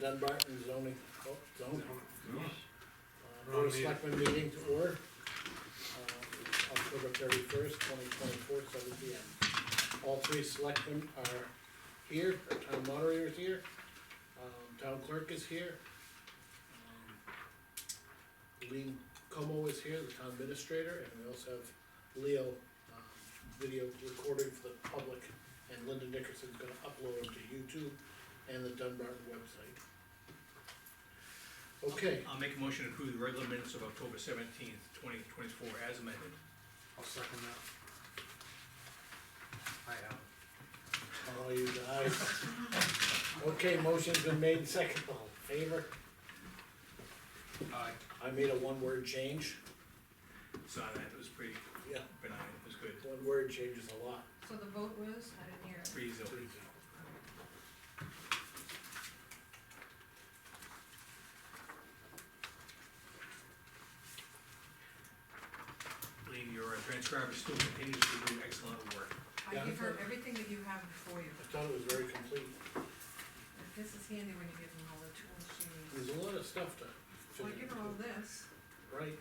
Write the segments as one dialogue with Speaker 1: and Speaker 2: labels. Speaker 1: Dunbarton zoning, oh, zone. Uh,
Speaker 2: Wrong
Speaker 1: Board of
Speaker 2: meeting.
Speaker 1: Selectmen meeting to order, uh, October thirty-first, twenty twenty-four, seven P M. All three selectmen are here, our town moderator is here, um, town clerk is here. um, Lean Como is here, the town administrator, and we also have Leo, um, video recording for the public. And Linda Nickerson's gonna upload them to YouTube and the Dunbarton website. Okay,
Speaker 3: I'll make a motion to approve the regular minutes of October seventeenth, twenty twenty-four as amended.
Speaker 2: I'll second that. I have.
Speaker 1: All you guys. Okay, motion's been made and second, all in favor?
Speaker 2: Aye.
Speaker 1: I made a one word change.
Speaker 3: Saw that, it was pretty
Speaker 1: Yeah.
Speaker 3: benign, it was good,
Speaker 1: One word changes a lot.
Speaker 4: So the vote was, I didn't hear it.
Speaker 3: pretty easy. Lean, your transcriber still continues to do excellent work.
Speaker 1: Yeah.
Speaker 4: I give her everything that you have before you.
Speaker 1: I thought it was very complete.
Speaker 4: This is handy when you give them all the tools she needs.
Speaker 1: There's a lot of stuff to.
Speaker 4: So I give her all this.
Speaker 1: Right,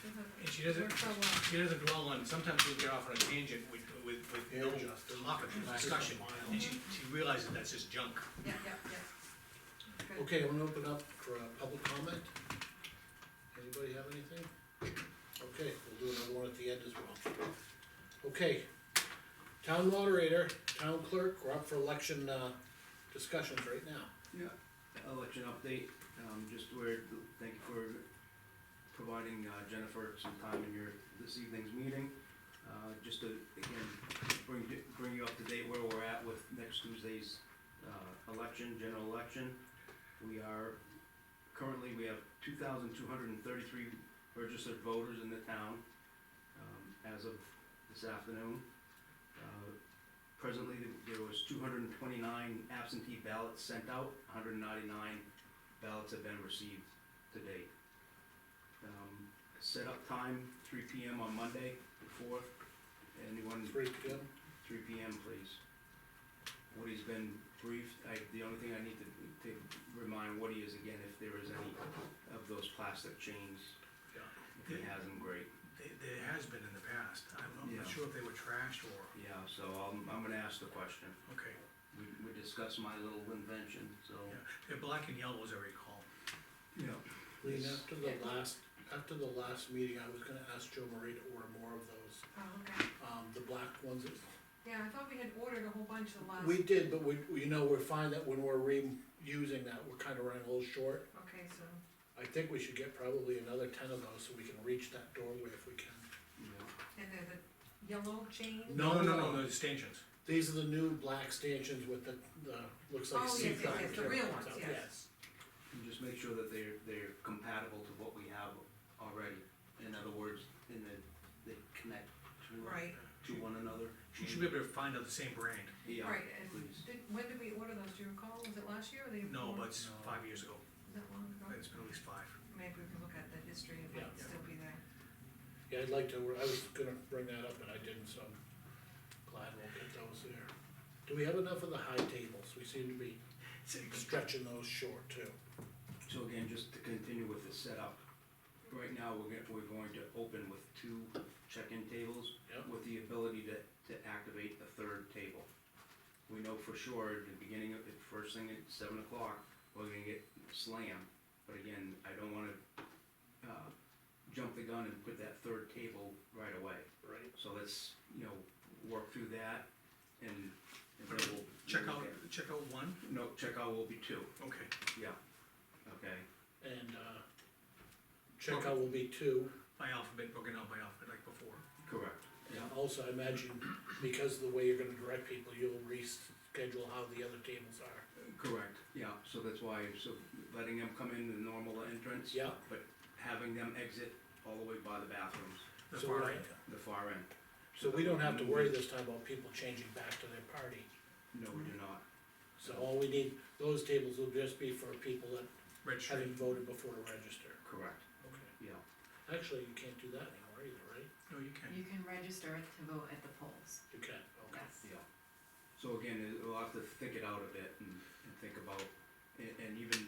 Speaker 4: She'll have-
Speaker 3: And she doesn't,
Speaker 4: Works out well.
Speaker 3: she doesn't dwell on, sometimes we'll get off on a tangent with, with, with no
Speaker 1: Yeah, Justin.
Speaker 3: topic of discussion, and she, she realizes that's just junk.
Speaker 4: Yeah, yeah, yeah. Good.
Speaker 1: okay, I'm gonna open up for a public comment. Anybody have anything? Okay, we'll do another one at the end as well. Okay, town moderator, town clerk, we're up for election, uh, discussions right now.
Speaker 5: Yeah, election update, um, just where, thank you for providing uh, Jennifer some time in your, this evening's meeting. Uh, just to, again, bring, bring you up to date where we're at with next Tuesday's, uh, election, general election. We are, currently, we have two thousand two hundred and thirty-three registered voters in the town, um, as of this afternoon. Uh, Presently, th- there was two hundred and twenty-nine absentee ballots sent out, hundred and ninety-nine ballots have been received to date. Um, Set up time, three P M on Monday, the fourth, anyone?
Speaker 1: Three P M.
Speaker 5: Three P M, please. Woody has been briefed, I, the only thing I need to, to remind Woody is again, if there is any of those plastic chains,
Speaker 3: Yeah.
Speaker 5: if he has them, great.
Speaker 3: There, there has been in the past, I'm
Speaker 5: Yeah.
Speaker 3: not sure if they were trashed or,
Speaker 5: Yeah, so I'm, I'm gonna ask the question,
Speaker 3: okay,
Speaker 5: we, we discussed my little invention, so.
Speaker 3: yeah, they're black and yellow as I recall.
Speaker 5: Yeah.
Speaker 1: Lean, after the last, after the last meeting, I was gonna ask Joe Marie to order more of those,
Speaker 4: Oh, okay.
Speaker 1: um, the black ones. that-
Speaker 4: Yeah, I thought we had ordered a whole bunch the last,
Speaker 1: We did, but we, we- you know, we find that when we're reusing that, we're kinda running a little short.
Speaker 4: okay, so,
Speaker 1: I think we should get probably another ten of those so we can reach that doorway if we can.
Speaker 4: and then the yellow chain?
Speaker 1: No,
Speaker 3: No,
Speaker 1: no.
Speaker 3: no, no, stanchions.
Speaker 1: These are the new black stanchions with the, the, looks like
Speaker 4: Oh, yes,
Speaker 1: sea
Speaker 4: yes,
Speaker 1: dye
Speaker 4: yes, the
Speaker 1: material
Speaker 4: real
Speaker 1: comes
Speaker 4: ones,
Speaker 1: out,
Speaker 4: yes.
Speaker 5: And just make sure that they're, they're compatible to what we have already, in other words, and that they connect to,
Speaker 4: Right,
Speaker 5: to one another.
Speaker 3: She should be able to find out the same brand.
Speaker 5: Yeah,
Speaker 4: right,
Speaker 5: please.
Speaker 4: and did, when did we order those, do you recall, was it last year or the? year
Speaker 3: No,
Speaker 4: before?
Speaker 3: but it's five years ago,
Speaker 4: Is that long ago?
Speaker 3: it's been at least five.
Speaker 4: Maybe we can look at the history, it might
Speaker 3: Yeah.
Speaker 4: still be there.
Speaker 1: Yeah, I'd like to, I was gonna bring that up and I didn't, so I'm glad we'll get those there. Do we have enough of the high tables? We seem to be stretching those short too.
Speaker 5: So again, just to continue with the setup, right now, we're gonna, we're going to open with two check-in tables
Speaker 1: Yep.
Speaker 5: with the ability to, to activate a third table. We know for sure, at the beginning of, the first thing at seven o'clock, we're gonna get slammed, but again, I don't wanna, uh, jump the gun and put that third table right away.
Speaker 1: Right.
Speaker 5: So let's, you know, work through that and, and then we'll.
Speaker 3: Check out, check out one,
Speaker 5: No, checkout will be two,
Speaker 3: okay,
Speaker 5: yeah, okay,
Speaker 1: And, uh, checkout will be two,
Speaker 3: by alphabet, broken out by alphabet like before.
Speaker 5: correct.
Speaker 1: and also I imagine, because of the way you're gonna direct people, you'll reschedule how the other tables are.
Speaker 5: Correct, yeah, so that's why, so letting them come in the normal entrance.
Speaker 1: Yeah.
Speaker 5: But having them exit all the way by the bathrooms,
Speaker 3: The
Speaker 1: So
Speaker 3: far
Speaker 1: we're-
Speaker 3: right,
Speaker 5: the far end.
Speaker 1: So we don't have to worry this time about people changing back to their party,
Speaker 5: No, we do not,
Speaker 1: so all we need, those tables will just be for people that
Speaker 3: red
Speaker 1: haven't
Speaker 3: string.
Speaker 1: voted before to register.
Speaker 5: correct,
Speaker 1: Okay,
Speaker 5: yeah.
Speaker 1: actually, you can't do that anymore either, right?
Speaker 3: No, you can.
Speaker 6: You can register to vote at the polls,
Speaker 1: You can, okay.
Speaker 6: yes.
Speaker 5: Yeah. So again, it- we'll have to think it out a bit and, and think about, and, and even